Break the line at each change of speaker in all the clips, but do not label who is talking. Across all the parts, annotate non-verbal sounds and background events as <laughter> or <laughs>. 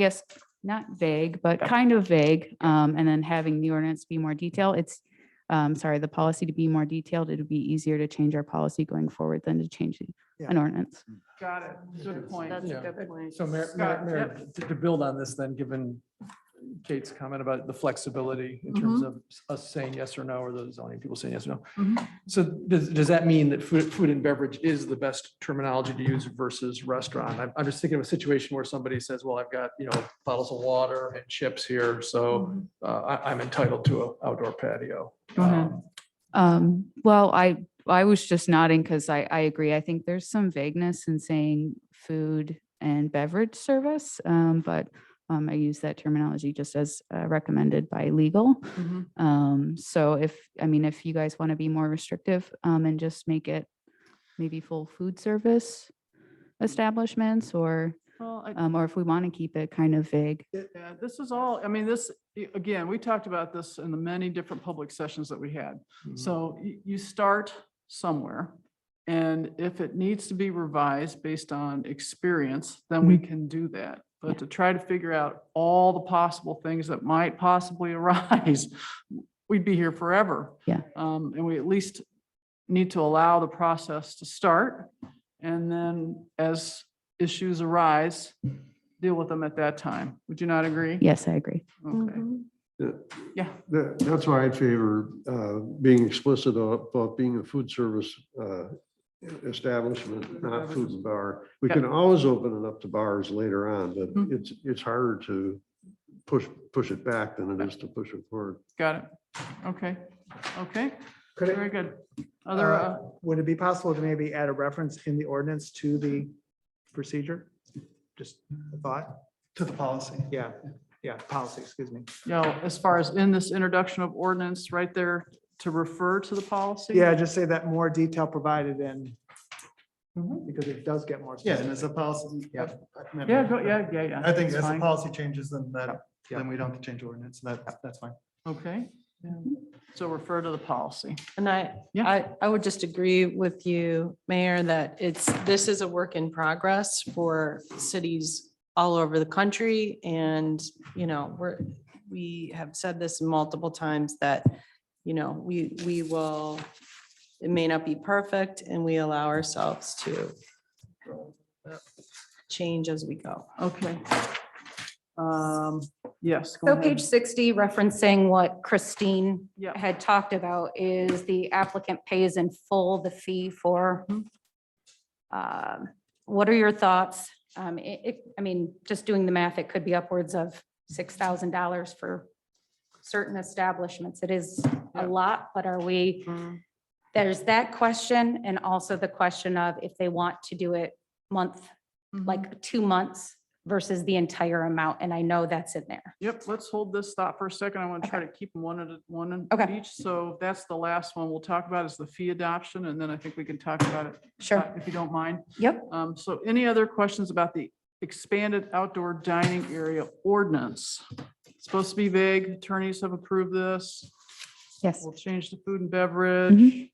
guess, not vague, but kind of vague. Um, and then having the ordinance be more detailed, it's, um, sorry, the policy to be more detailed, it'd be easier to change our policy going forward than to change the-
Yeah.
an ordinance.
Got it. Good point.
That's
Yeah.
a good point.
So Mayor, Mayor,
Scott,
Mayor, to- to build on this then, given Kate's comment about the flexibility in terms of us saying yes or no, or the zoning people saying yes or no.
Mhm.
So does, does that mean that food, food and beverage is the best terminology to use versus restaurant? I'm, I'm just thinking of a situation where somebody says, well, I've got, you know, bottles of water and chips here, so uh, I, I'm entitled to an outdoor patio.
Mhm.
Um,
Um, well, I, I was just nodding because I, I agree. I think there's some vagueness in saying food and beverage service. Um, but, um, I use that terminology just as uh, recommended by legal.
Mhm.
Um, so if, I mean, if you guys want to be more restrictive, um, and just make it maybe full food service establishments or,
Well, I-
um, or if we want to keep it kind of vague.
yeah, this is all, I mean, this, a- again, we talked about this in the many different public sessions that we had. So y- you start somewhere. And if it needs to be revised based on experience, then we can do that. But to try to figure out all the possible things that might possibly <laughs> arise, we'd be here forever.
Yeah.
Um, and we at least need to allow the process to start. And then as issues arise, deal with them at that time. Would you not agree?
Yes, I agree.
Okay,
Mhm.
yeah.
That, that's why I favor uh, being explicit about being a food service uh, establishment, not food and bar. We can always open it up to bars later on,
Mhm.
but it's, it's harder to push, push it back than it is to push it forward.
Got it. Okay, okay,
Could
very
it,
good. Other,
uh,
uh,
would it be possible to maybe add a reference in the ordinance to the procedure? Just a thought?
To the policy.
Yeah, yeah, policy, excuse me.
you know, as far as in this introduction of ordinance, right there to refer to the policy?
Yeah, just say that more detail provided in,
Mhm.
because it does get more.
Yeah, and
specific.
as a policy.
Yeah.
Yeah, go, yeah, yeah, yeah.
I think as
that's
the
fine.
policy changes, then that,
Yeah.
then we don't have to change ordinance. That, that's fine.
Okay. So refer to the policy.
And I,
Yeah.
I, I would just agree with you, Mayor, that it's, this is a work in progress for cities all over the country. And, you know, we're, we have said this multiple times that, you know, we, we will, it may not be perfect and we allow ourselves to change as we go.
Okay. Um, yes. go
So
ahead.
page sixty, referencing what Christine
Yeah.
had talked about, is the applicant pays in full the fee for.
Mm-hmm.
Um, What are your thoughts? Um, it, it, I mean, just doing the math, it could be upwards of six thousand dollars for certain establishments. It is
Yeah.
a lot, but are we,
Mm-hmm.
there's that question and also the question of if they want to do it month,
Mhm.
like two months versus the entire amount. And I know that's in there.
Yep, let's hold this thought for a second. I want to try to keep them one at, a- one at
Okay.
each. So that's the last one we'll talk about is the fee adoption, and then I think we can talk about it
Sure.
uh, if you don't mind.
Yep.
Um, so any other questions about the expanded outdoor dining area ordinance? It's Supposed to be vague. Attorneys have approved this.
Yes.
We'll change the food and beverage.
Mm-hmm.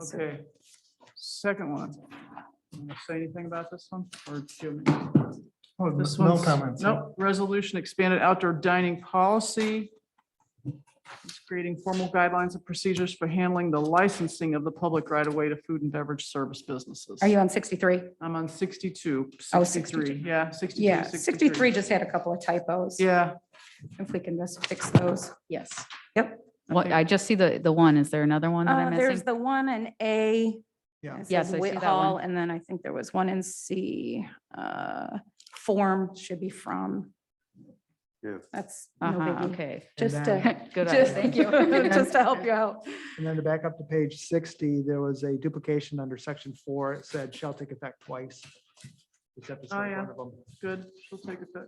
Okay. Second one. Wanna Say anything about this one or Jimmy?
Oh,
This
No
one's-
comments.
Nope, resolution expanded outdoor dining policy. It's creating formal guidelines and procedures for handling the licensing of the public right of way to food and beverage service businesses.
Are you on sixty-three?
I'm on 62,
Oh,
63, yeah, 62.
Yeah, sixty-three just had a couple of typos.
Yeah.
If we can just fix those.
Yes.
What, I just see the, the one. Is there another one that
Uh,
I'm
there's
missing?
the one in A.
Yeah.
it says
Yes, I see
Whit
that
Hall,
one.
And then I think there was one in C, uh, form should be from.
Yeah.
That's. no
Uh-huh,
biggie.
okay. <laughs>
Just
And
to,
Good
just,
eye. <laughs>
thank you, <laughs> just to help you out.
And then to back up to page sixty, there was a duplication under section four. It said shall take effect twice. Except it's
Oh,
not
yeah.
one of them.
Good, she'll take it back.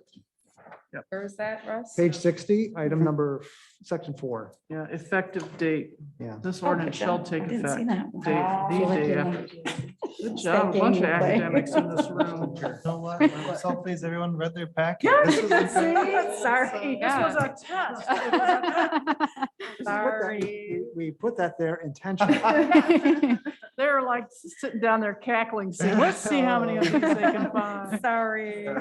Where is that, Russ?
Page sixty, item number, section four.
Yeah, effective date.
Yeah.
This
Okay,
ordinance shall
done.
take
I didn't see
effect.
that one.
Date, the day after. Good job, a bunch of
Thinking, but-
academics in this
<laughs>
room.
You know what? I'm so pleased everyone read their packet. This is a good-
Sorry.
This was a test. <laughs> It was a-
Sorry. We put that there intentionally.
<laughs> <laughs>
They're like sitting down there cackling, saying, let's see how many of these they can find.
Sorry.